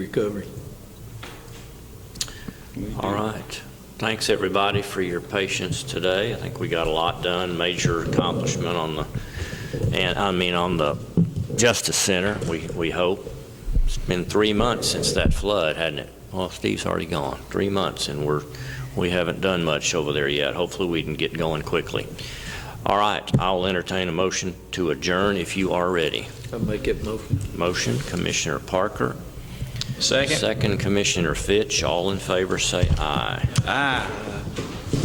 recovery. All right. Thanks, everybody, for your patience today. I think we got a lot done, major accomplishment on the, and, I mean, on the Justice Center, we, we hope. It's been three months since that flood, hadn't it? Well, Steve's already gone, three months, and we're, we haven't done much over there yet. Hopefully, we can get going quickly. All right, I'll entertain a motion to adjourn if you are ready. I make it motion. Motion, Commissioner Parker. Second. Second, Commissioner Fitch. All in favor, say aye. Aye.